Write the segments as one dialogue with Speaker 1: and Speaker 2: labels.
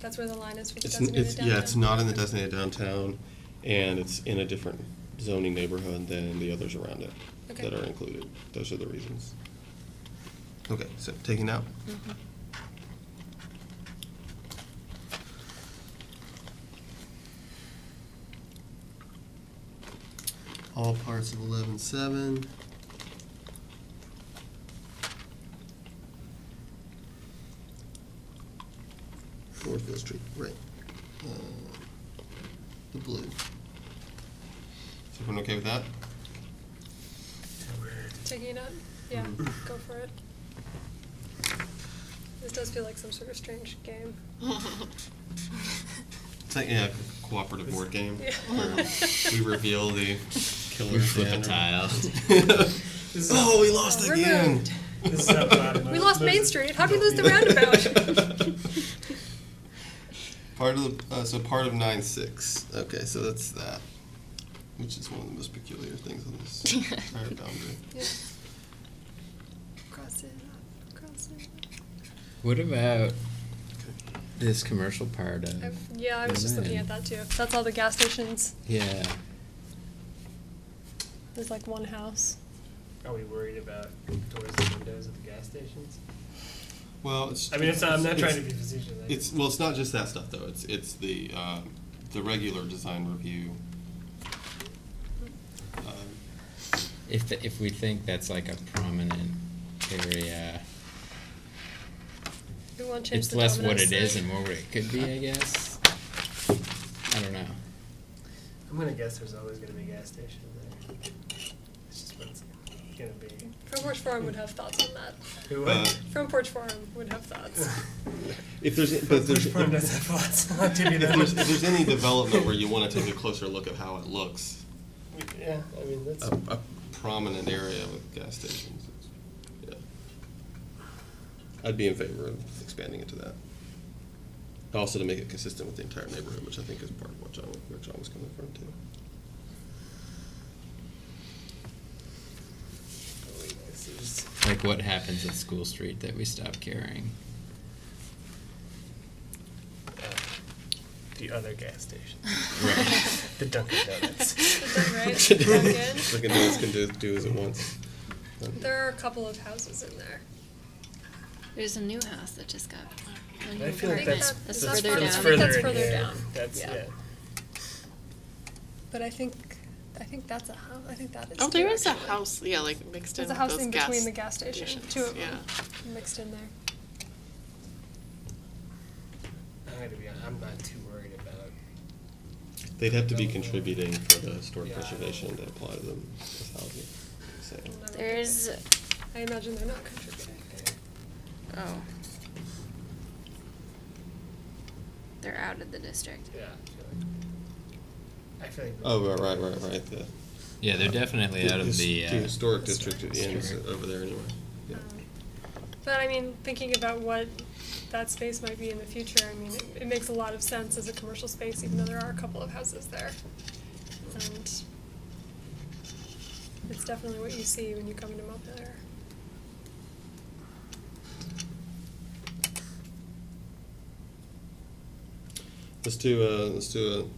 Speaker 1: That's where the line is for the
Speaker 2: It's,
Speaker 1: designated
Speaker 2: it's,
Speaker 1: downtown?
Speaker 2: yeah, it's not in the designated downtown, and it's in a different zoning neighborhood than the others around it
Speaker 1: Okay.
Speaker 2: that are included. Those are the reasons. Okay, so taking out. All parts of eleven seven. Northfield Street, right. Uh, The blue. Is everyone okay with that?
Speaker 1: Taking it up? Yeah,
Speaker 2: Mm.
Speaker 1: go for it. This does feel like some sort of strange game.
Speaker 2: It's like yeah, a cooperative board game
Speaker 1: Yeah.
Speaker 2: where we reveal the killer
Speaker 3: flip a tile.
Speaker 4: This is-
Speaker 2: oh, we lost
Speaker 1: Oh, we're
Speaker 2: again.
Speaker 1: moved.
Speaker 4: This is up bottom.
Speaker 1: We lost Main
Speaker 4: Those-
Speaker 1: Street. How'd we lose the roundabout?
Speaker 2: Part of the, uh, so part of nine six. Okay, so that's that, which is one of the most peculiar things on this entire boundary.
Speaker 1: Yeah. Cross it up, cross it
Speaker 3: What about this commercial part
Speaker 1: up.
Speaker 3: of?
Speaker 1: I've- Yeah, I was just looking at
Speaker 3: Amen.
Speaker 1: that too. That's all the gas stations.
Speaker 3: Yeah.
Speaker 1: There's like one house.
Speaker 4: Are we worried about doors and windows at the gas stations?
Speaker 2: Well, it's,
Speaker 4: I mean, it's not, I'm not
Speaker 2: it's-
Speaker 4: trying to be facetious. I-
Speaker 2: It's well, it's not just that stuff though. It's it's the um, the regular design review. Um,
Speaker 4: Uh,
Speaker 3: If, the- if we think that's like a prominent area,
Speaker 1: We won't change
Speaker 3: it's
Speaker 1: the
Speaker 3: less what
Speaker 1: Domino's
Speaker 3: it is
Speaker 1: thing.
Speaker 3: and more what it could be, I guess. I don't know.
Speaker 4: I'm gonna guess there's always gonna be a gas station there. It's just what it's gonna be.
Speaker 1: Front Porch Forum would have thoughts on that.
Speaker 4: Who
Speaker 2: Uh,
Speaker 4: would?
Speaker 1: Front Porch Forum would have thoughts.
Speaker 2: If there's, but if there's,
Speaker 4: Which firm does have lots? I'll give you
Speaker 2: if
Speaker 4: that.
Speaker 2: there's, if there's any development where you want to take a closer look at how it looks,
Speaker 4: Yeah, I mean, that's,
Speaker 2: a, a prominent area with gas stations, is- yeah. I'd be in favor of expanding into that. Also to make it consistent with the entire neighborhood, which I think is part of what John, where John was coming from too.
Speaker 4: this is-
Speaker 3: Like what happens at School Street that we stop caring?
Speaker 4: Uh, the other gas station,
Speaker 3: Right.
Speaker 4: the Dunkin' Donuts.
Speaker 1: Is that right? Dunkin'?
Speaker 2: Dunkin' Donuts can do, do as it wants.
Speaker 1: There are a couple of houses in there.
Speaker 5: There's a new house that just got.
Speaker 4: I feel like
Speaker 1: think
Speaker 4: that's,
Speaker 1: that-
Speaker 4: that's
Speaker 5: That's
Speaker 1: that's
Speaker 5: further
Speaker 1: further- I think that's
Speaker 4: that's further in
Speaker 5: down.
Speaker 1: further
Speaker 4: here.
Speaker 1: down.
Speaker 4: That's,
Speaker 1: Yeah.
Speaker 4: yeah.
Speaker 1: But I think, I think that's a house, I think that is.
Speaker 5: Oh, there
Speaker 1: too,
Speaker 5: is a
Speaker 1: actually.
Speaker 5: house, yeah, like mixed in
Speaker 1: There's a
Speaker 5: with
Speaker 1: house
Speaker 5: those
Speaker 1: in
Speaker 5: gas.
Speaker 1: between the gas station,
Speaker 5: stations,
Speaker 1: two of them
Speaker 5: yeah.
Speaker 1: mixed in there.
Speaker 4: I'm gonna be, honest, I'm not too worried about
Speaker 2: They'd have to be contributing for the historic
Speaker 4: Yeah, I know.
Speaker 2: preservation to apply to them as housing, so.
Speaker 1: I don't know.
Speaker 5: There's,
Speaker 1: I imagine they're not contributing.
Speaker 5: oh. They're out of the district.
Speaker 4: Yeah, I feel like. I feel like
Speaker 2: Oh, right, right, right, right, the.
Speaker 3: Yeah, they're definitely out of
Speaker 2: his-
Speaker 3: the. uh,
Speaker 2: historic district,
Speaker 1: historic
Speaker 2: yeah, it's
Speaker 3: district.
Speaker 2: over there anyway, yeah.
Speaker 1: Um, But I mean, thinking about what that space might be in the future, I mean, it, it makes a lot of sense as a commercial space, even though there are a couple of houses there. And it's definitely what you see when you come into Montpelier.
Speaker 2: Let's do a, let's do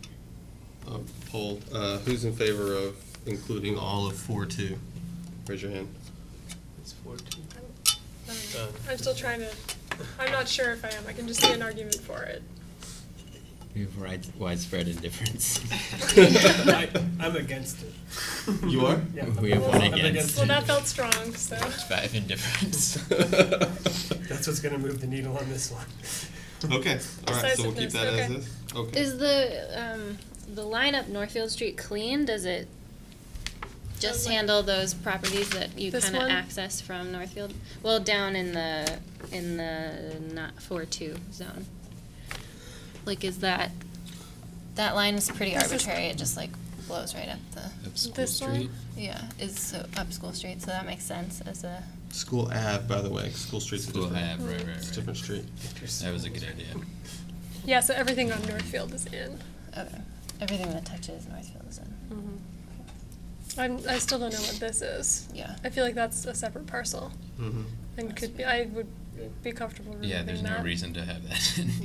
Speaker 2: a, a poll. Uh, who's in favor of including all of four two? Raise your hand.
Speaker 4: It's fourteen.
Speaker 1: I'm, I don't know.
Speaker 4: Done.
Speaker 1: I'm still trying to, I'm not sure if I am, I can just see an argument for it.
Speaker 3: We have wide- widespread indifference.
Speaker 4: I, I'm against it.
Speaker 2: You are?
Speaker 4: Yeah.
Speaker 3: We have one
Speaker 4: I'm
Speaker 3: against.
Speaker 1: Well, that felt strong, so.
Speaker 3: Five indifference.
Speaker 4: That's what's gonna move the needle on this one.
Speaker 2: Okay, all right, so we'll keep
Speaker 1: Decisiveness,
Speaker 2: that as
Speaker 1: okay.
Speaker 2: is? Okay.
Speaker 6: Is the um, the line up Northfield Street clean? Does it
Speaker 1: Does,
Speaker 6: just
Speaker 1: like-
Speaker 6: handle those properties that you
Speaker 1: This
Speaker 6: kind of
Speaker 1: one?
Speaker 6: access from Northfield? Well, down in the in the not four two zone. Like, is that that line is pretty
Speaker 1: This is-
Speaker 6: arbitrary? It just like blows right up the
Speaker 3: Up School
Speaker 1: This one?
Speaker 3: Street.
Speaker 6: yeah is so up School Street, so that makes sense as a
Speaker 2: School Ave, by the way, School Street's a
Speaker 3: School
Speaker 2: different,
Speaker 3: Ave, right, right,
Speaker 2: it's a
Speaker 3: right.
Speaker 2: different street.
Speaker 3: That was a good idea.
Speaker 1: Yeah, so everything on Northfield is in.
Speaker 6: okay. everything that touches Northfield is in.
Speaker 1: I'm, I still don't know what this is.
Speaker 6: Yeah.
Speaker 1: I feel like that's a separate parcel
Speaker 2: Mhm.
Speaker 1: and could be, I would be comfortable removing
Speaker 3: Yeah,
Speaker 1: that.
Speaker 3: there's no reason to have that.